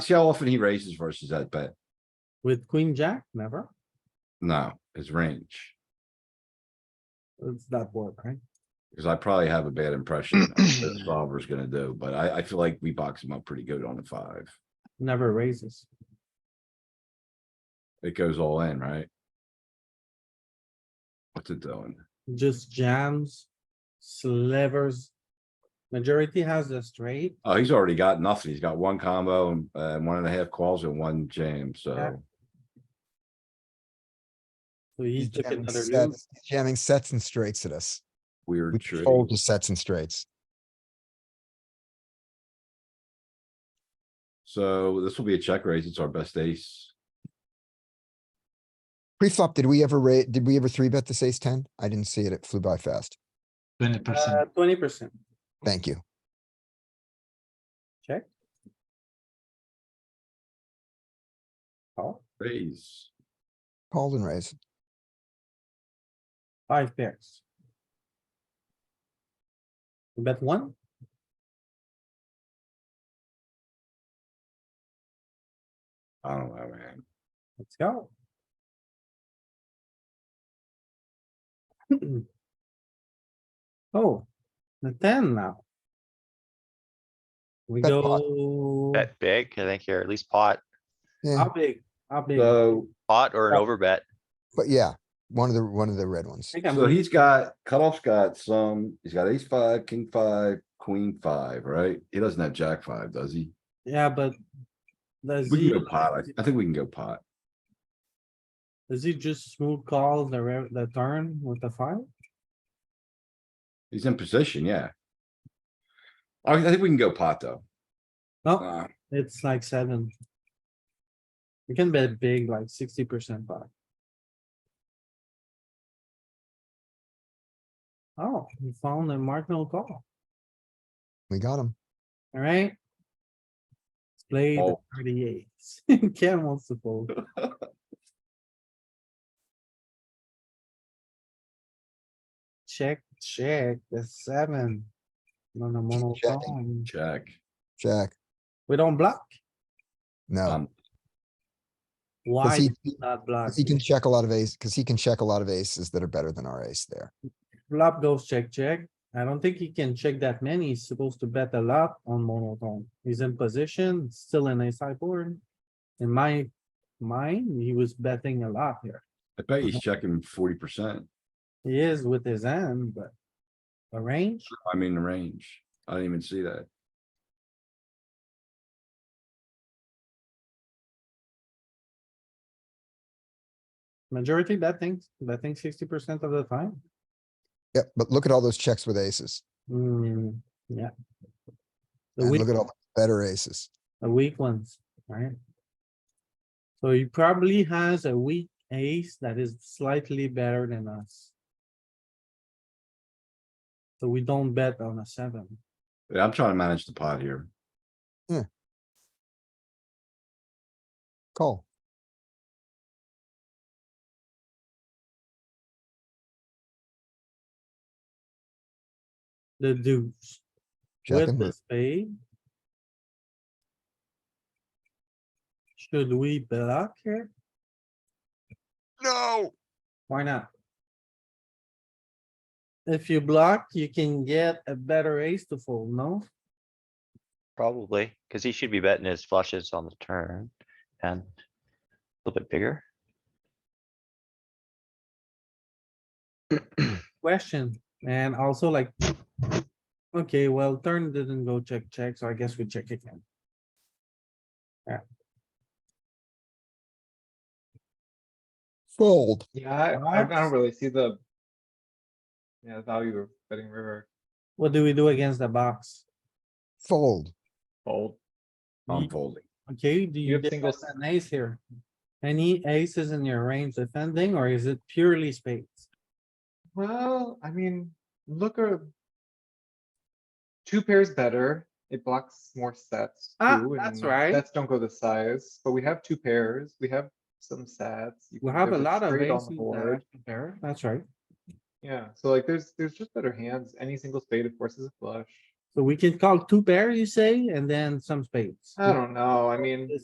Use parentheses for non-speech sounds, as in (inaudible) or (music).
See how often he raises versus that bet? With queen jack, never. No, his range, It's that board, right? because I probably have a bad impression of what the solver's gonna do, but I, I feel like we box him up pretty good on the five. Never raises. It goes all in, right? What's it doing? Just jams, slivers. Majority has a straight. Oh, he's already got nothing. He's got one combo and, uh, one and a half calls and one jam, so. So he He's took jamming another move. sets- he's Jamming sets and straights at us. We Weird can tree. fold to sets and straights. So this will be a check raise. It's our best ace. Pre-flop, did we ever rate, did we ever three bet this ace ten? I didn't see it. It flew by fast. Twenty percent. Uh, twenty percent. Thank you. Check. Call. Raise. Called and raised. Five pairs. We Bet one, I don't know, man. let's go. (clears throat) Oh, the ten now. We Bet pot. go, Bet big, I think you're at least pot, Yeah, how big, how big? I So, pot or an Oh. overbet. but yeah, one of the, one of the red ones. think I'm so he's got, cutoff's got some, he's got ace five, king five, queen five, right? He doesn't have jack five, does he? Yeah, but does We he, can go pot. I- I think we can go pot. does he just smooth call the re- the turn with the five? He's in position, yeah. I, I think we can go pot though. No, Uh, it's like seven. You can bet big, like sixty percent back. Oh, we found a marginal call, We got him. alright? Let's play the Oh. thirty-eight. (laughs) Ken wants to fold. Check, check, the seven. On a mono checking. call. Check. Jack. We don't block. No, Um, because Why he, do we not block? 'cause he can check a lot of ace, because he can check a lot of aces that are better than our ace there. Flop goes check, check. I don't think he can check that many. He's supposed to bet a lot on monotone. He's in position, still in a sideboard. In my mind, he was betting a lot here. I bet he's checking forty percent. He is with his hand, but the range, I mean, the range. I didn't even see that. majority betting, betting sixty percent of the time. Yep, but look at all those checks with aces. Hmm, yeah. The And weak, look at all the better aces. the weak ones, right? So he probably has a weak ace that is slightly better than us. So we don't bet on a seven. Yeah, I'm trying to manage the pot here. Call. the deuce Check with the and spade. Should we block here? No. Why not? If you block, you can get a better ace to fold, no? probably, cuz he should be betting his flushes on the turn and a little bit bigger. Question, and also like. Okay, well, turn didn't go check, check, so I guess we check again. Fold. Yeah, I, I Perhaps. don't really see the. Yeah, the value of betting river What do we do against the box? Fold. fold. I'm Ye- folding. Okay, do you have get singles. an ace here? Any aces in your range defending, or is it purely spades? Well, I mean, look or. Two pairs better, it blocks more sets. Ah, too, that's and right. Sets don't go the size, but we have two pairs, we have some sets. you We can- have a there's lot of straight on aces the that board. are there, that's right. Yeah, so like there's, there's just better hands, any single spade of course is a flush. So we can call two pair, you say, and then some spades. Ah. I don't know, I mean.